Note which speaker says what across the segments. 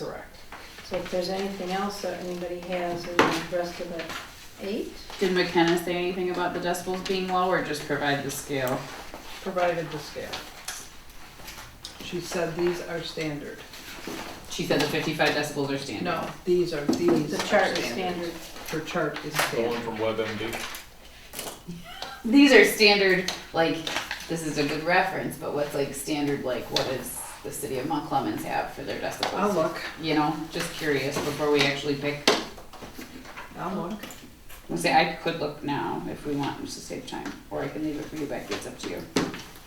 Speaker 1: Correct.
Speaker 2: So if there's anything else that anybody has in the rest of the eight,
Speaker 3: Did McKenna say anything about the decibels being low or just provide the scale?
Speaker 1: Provided the scale. She said these are standard.
Speaker 3: She said the 55 decibels are standard.
Speaker 1: No, these are, these
Speaker 2: the
Speaker 1: are
Speaker 2: chart is
Speaker 1: standard.
Speaker 2: standard.
Speaker 1: Her chart is
Speaker 4: Going
Speaker 1: standard.
Speaker 4: from WebMD.
Speaker 3: These are standard, like, this is a good reference, but what's like standard, like, what does the city of Mont Clemens have for their decibels?
Speaker 1: I'll look,
Speaker 3: You know, just curious before we actually pick.
Speaker 1: I'll look.
Speaker 3: I say I could look now if we want, just to save time, or I can leave it for you back. It's up to you.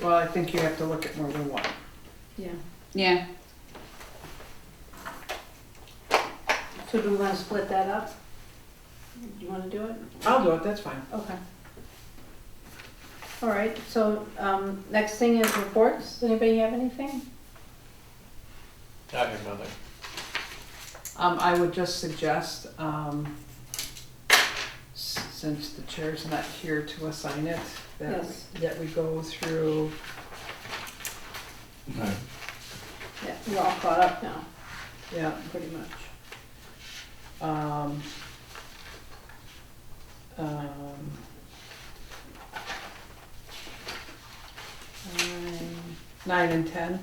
Speaker 1: Well, I think you have to look at more than one.
Speaker 2: Yeah.
Speaker 3: Yeah.
Speaker 2: So do we want to split that up? Do you want to do it?
Speaker 1: I'll do it, that's fine.
Speaker 2: Okay. All right, so um, next thing is reports. Does anybody have anything?
Speaker 4: I have nothing.
Speaker 1: Um, I would just suggest, um, s- since the chair's not here to assign it, that,
Speaker 2: Yes.
Speaker 1: that we go through,
Speaker 2: Yeah, we're all caught up now,
Speaker 1: yeah,
Speaker 2: pretty much.
Speaker 1: um, um,
Speaker 2: Um,
Speaker 1: nine and ten.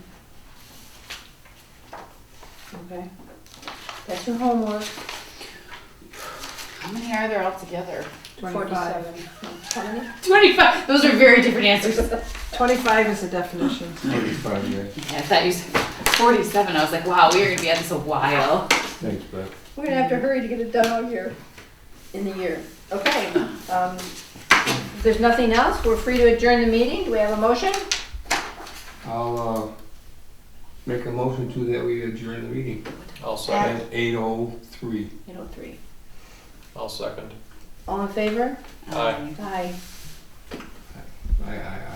Speaker 2: Okay. That's your homework.
Speaker 3: How many are there altogether?
Speaker 1: 25.
Speaker 2: Forty-seven. No, Twenty?
Speaker 3: 25. Those are very different answers.
Speaker 1: Twenty-five is the definition.
Speaker 5: Thirty-five years.
Speaker 3: Yeah, I thought you said 47. I was like, wow, we are going to be at this a while.
Speaker 5: Thanks, Beth.
Speaker 2: We're gonna have to hurry to get it done all year, in the year. Okay, um, if there's nothing else, we're free to adjourn the meeting. Do we have a motion?
Speaker 5: I'll, uh, make a motion to that we adjourn the meeting
Speaker 4: I'll second.
Speaker 5: at eight oh three.
Speaker 2: Eight oh three.
Speaker 4: I'll second.
Speaker 2: All in favor?
Speaker 4: Aye.
Speaker 3: Um,
Speaker 2: Aye.
Speaker 5: Aye, aye, aye.